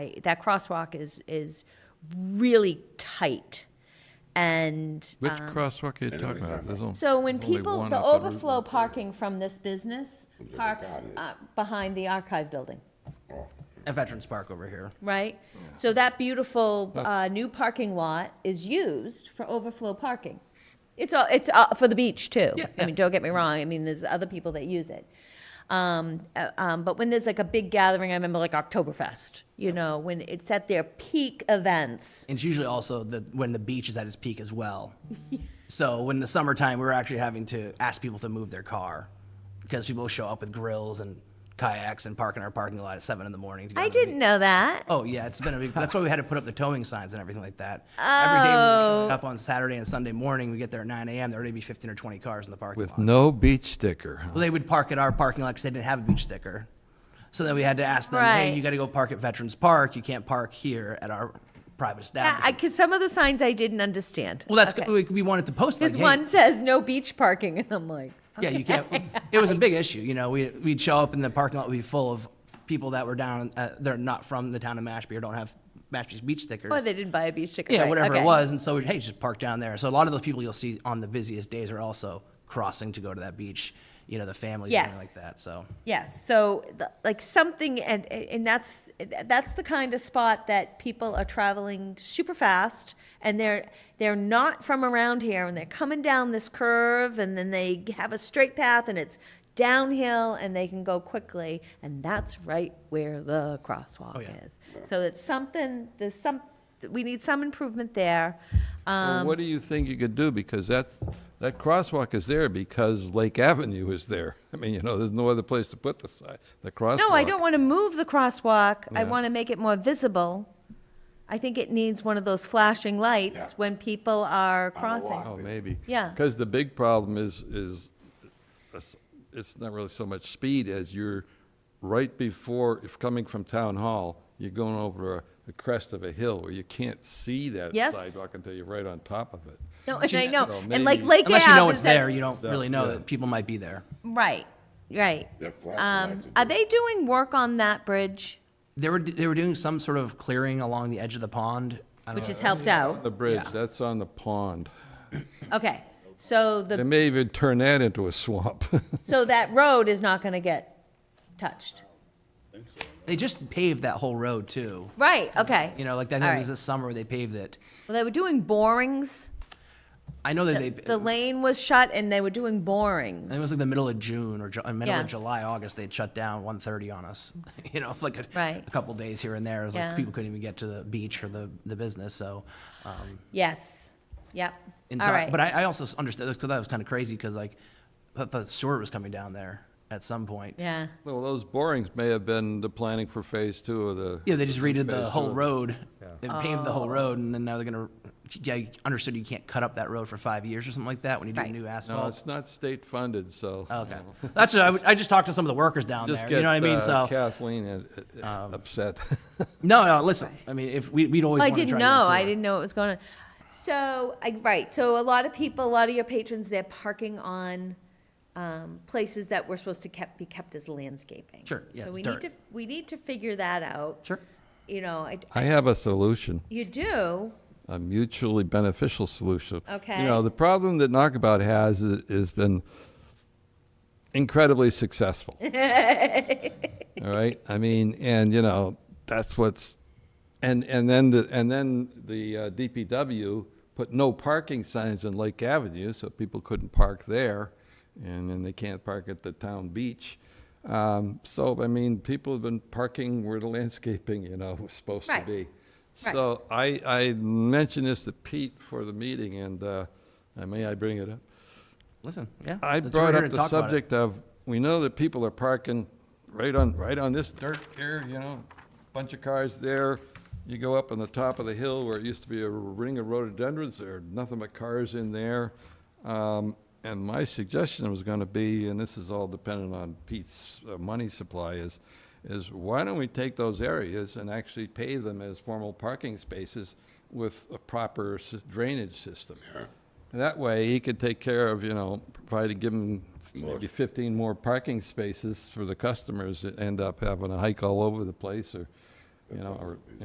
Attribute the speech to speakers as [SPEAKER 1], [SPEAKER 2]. [SPEAKER 1] that crosswalk is, is really tight. And
[SPEAKER 2] Which crosswalk are you talking about? There's on-
[SPEAKER 1] Um, so when
[SPEAKER 2] only
[SPEAKER 1] people,
[SPEAKER 2] one
[SPEAKER 1] the
[SPEAKER 2] up Route
[SPEAKER 1] overflow
[SPEAKER 2] 130.
[SPEAKER 1] parking from this business
[SPEAKER 3] the
[SPEAKER 1] parks
[SPEAKER 3] garden.
[SPEAKER 1] uh, behind the archive building,
[SPEAKER 4] at Veterans Park over here.
[SPEAKER 1] right? So that beautiful uh, new parking lot is used for overflow parking. It's, all it's uh, for the beach too.
[SPEAKER 4] Yeah,
[SPEAKER 1] I mean, don't get me wrong, I mean, there's other people that use it. Um, uh, um, But when there's like a big gathering, I remember like Oktoberfest, you know, when it's at their peak events.
[SPEAKER 4] And it's usually also the, when the beach is at its peak as well. So when the summertime, we were actually having to ask people to move their car because people show up with grills and kayaks and park in our parking lot at seven in the morning. To go
[SPEAKER 1] I
[SPEAKER 4] to the
[SPEAKER 1] didn't
[SPEAKER 4] beach.
[SPEAKER 1] know that.
[SPEAKER 4] Oh yeah, it's been a big. That's why we had to put up the towing signs and everything like that. Every day we were showing
[SPEAKER 1] Oh.
[SPEAKER 4] up on Saturday and Sunday morning. We get there at 9 a.m. There would already be 15 or 20 cars in the parking
[SPEAKER 2] With
[SPEAKER 4] lot.
[SPEAKER 2] no beach sticker.
[SPEAKER 4] Well, they would park at our parking lot because they didn't have a beach sticker. So then we had to ask them,
[SPEAKER 1] Right.
[SPEAKER 4] hey, you got to go park at Veterans Park. You can't park here at our private establishment.
[SPEAKER 1] Because some of the signs I didn't understand.
[SPEAKER 4] well, that's
[SPEAKER 1] Okay.
[SPEAKER 4] we, we wanted to post like,
[SPEAKER 1] Because
[SPEAKER 4] hey,
[SPEAKER 1] one says no beach parking, and I'm like,
[SPEAKER 4] yeah, you can't. It was a big issue. You know, we we'd show up and the parking lot would be full of people that were down. Uh, they're not from the town of Mashpee or don't have Mashpee's beach stickers.
[SPEAKER 1] oh, they didn't buy a beach ticket.
[SPEAKER 4] yeah,
[SPEAKER 1] right,
[SPEAKER 4] whatever
[SPEAKER 1] okay.
[SPEAKER 4] it was. And so we'd, hey, just park down there. So a lot of those people you'll see on the busiest days are also crossing to go to that beach. You know, the families and
[SPEAKER 1] Yes.
[SPEAKER 4] everything like that. So.
[SPEAKER 1] Yes, so the- like something, and and that's that's the kind of spot that people are traveling super fast, and they're they're not from around here, and they're coming down this curve, and then they have a straight path, and it's downhill, and they can go quickly, and that's right where the crosswalk
[SPEAKER 4] yeah.
[SPEAKER 1] is. So it's something. There's some. We need some improvement there. Um,
[SPEAKER 2] Well, what do you think you could do? Because that's, that crosswalk is there because Lake Avenue is there. I mean, you know, there's no other place to put the sign, the crosswalk.
[SPEAKER 1] No, I don't want to move the crosswalk. I
[SPEAKER 2] Yeah.
[SPEAKER 1] want to make it more visible. I think it needs one of those flashing lights
[SPEAKER 3] Yeah.
[SPEAKER 1] when people are
[SPEAKER 3] On the walk.
[SPEAKER 1] crossing.
[SPEAKER 2] Oh, maybe.
[SPEAKER 1] Yeah.
[SPEAKER 2] Because the big problem is, is, it's- it's not really so much speed as you're right before, if coming from Town Hall, you're going over the crest of a hill where you can't see that
[SPEAKER 1] Yes.
[SPEAKER 2] sidewalk until you're right on top of it.
[SPEAKER 1] No, and I
[SPEAKER 2] So
[SPEAKER 1] know, and like
[SPEAKER 2] maybe-
[SPEAKER 1] Lake Ave.
[SPEAKER 4] Unless you know
[SPEAKER 1] is
[SPEAKER 4] it's
[SPEAKER 1] that-
[SPEAKER 4] there, you don't
[SPEAKER 2] Yeah,
[SPEAKER 4] really know
[SPEAKER 2] yeah.
[SPEAKER 4] that people might be there.
[SPEAKER 1] Right, right.
[SPEAKER 3] They're flashing
[SPEAKER 1] Um,
[SPEAKER 3] lights are
[SPEAKER 1] are they doing work on that bridge,
[SPEAKER 4] They were they were doing some sort of clearing along the edge of the pond. I don't
[SPEAKER 1] which
[SPEAKER 4] know.
[SPEAKER 1] has helped
[SPEAKER 3] Uh,
[SPEAKER 2] On The
[SPEAKER 1] out?
[SPEAKER 2] bridge,
[SPEAKER 4] Yeah.
[SPEAKER 2] that's on the pond.
[SPEAKER 1] Okay, so
[SPEAKER 2] They
[SPEAKER 1] the,
[SPEAKER 2] may even turn that into a swamp.
[SPEAKER 1] so that road is not going to get touched.
[SPEAKER 4] They just paved that whole road too.
[SPEAKER 1] Right, okay.
[SPEAKER 4] You know, like I
[SPEAKER 1] All
[SPEAKER 4] think it
[SPEAKER 1] right.
[SPEAKER 4] was this summer where they paved it.
[SPEAKER 1] Well, they were doing borings.
[SPEAKER 4] I know that they.
[SPEAKER 1] The lane was shut and they were doing borings.
[SPEAKER 4] I think it was like the middle of June or Ju- uh, middle
[SPEAKER 1] Yeah.
[SPEAKER 4] of July, August. They'd shut down 1:30 on us. you know, like a,
[SPEAKER 1] Right.
[SPEAKER 4] a couple days here and there. It was
[SPEAKER 1] Yeah.
[SPEAKER 4] like people couldn't even get to the beach or the the business. So. Um,
[SPEAKER 1] Yes, yep.
[SPEAKER 4] And
[SPEAKER 1] All
[SPEAKER 4] so,
[SPEAKER 1] right.
[SPEAKER 4] But I, I also s- understood because that was kind of crazy because like, I thought the sewer was coming down there at some point.
[SPEAKER 1] Yeah.
[SPEAKER 2] Well, those borings may have been the planning for phase two of the.
[SPEAKER 4] Yeah, they just redid
[SPEAKER 2] phase
[SPEAKER 4] the
[SPEAKER 2] two
[SPEAKER 4] whole
[SPEAKER 2] of-
[SPEAKER 4] road. They paved the whole
[SPEAKER 1] Oh.
[SPEAKER 4] road, and then now they're gonna. Yeah, you understood you can't cut up that road for five years or something like that when you do
[SPEAKER 1] Right.
[SPEAKER 4] new
[SPEAKER 2] No,
[SPEAKER 4] asphalt.
[SPEAKER 2] it's not state funded, so.
[SPEAKER 4] okay, that's what I, was- I just talked to some of the workers down
[SPEAKER 2] Just
[SPEAKER 4] there. You
[SPEAKER 2] get
[SPEAKER 4] know what I mean?
[SPEAKER 2] uh,
[SPEAKER 4] So um,
[SPEAKER 2] Kathleen uh, uh, upset.
[SPEAKER 4] no, no. Listen, I mean, if we we'd always.
[SPEAKER 1] Well, I
[SPEAKER 4] wanna
[SPEAKER 1] didn't
[SPEAKER 4] try to
[SPEAKER 1] know.
[SPEAKER 4] do
[SPEAKER 1] I
[SPEAKER 4] sewer.
[SPEAKER 1] didn't know what was going on. So, I, right. So, a lot of people, a lot of your patrons, they're parking on um, places that were supposed to kept, be kept as landscaping.
[SPEAKER 4] Sure, yeah,
[SPEAKER 1] so we
[SPEAKER 4] dirt.
[SPEAKER 1] need to we need to figure that out.
[SPEAKER 4] Sure.
[SPEAKER 1] You know, I,
[SPEAKER 2] I have a solution,
[SPEAKER 1] you do.
[SPEAKER 2] a mutually beneficial solution.
[SPEAKER 1] Okay.
[SPEAKER 2] You know, the problem that Knockabout has i- has been incredibly successful. All right, I mean, and you know, that's what's, and, and then the, and then the uh, DPW put no parking signs on Lake Avenue, so people couldn't park there, and then they can't park at the town beach. Um, so, I mean, people have been parking where the landscaping, you know, was supposed to
[SPEAKER 1] Right.
[SPEAKER 2] be. So I, I mentioned this to Pete for the meeting, and, uh, I may I bring it up?
[SPEAKER 4] Listen, yeah.
[SPEAKER 2] I
[SPEAKER 4] that's what we're
[SPEAKER 2] brought
[SPEAKER 4] here
[SPEAKER 2] up
[SPEAKER 4] to
[SPEAKER 2] the
[SPEAKER 4] talk about it.
[SPEAKER 2] subject of, we know that people are parking right on, right on this dirt here, you know, bunch of cars there. You go up on the top of the hill where it used to be a ring of rhododendrons, there are nothing but cars in there. Um, and my suggestion was gonna be, and this is all dependent on Pete's uh, money supply, is, is why don't we take those areas and actually pave them as formal parking spaces with a proper sys- drainage system? That way, he could take care of, you know, probably give him maybe 15 more parking spaces for the customers that end up having a hike all over the place or, you know, or,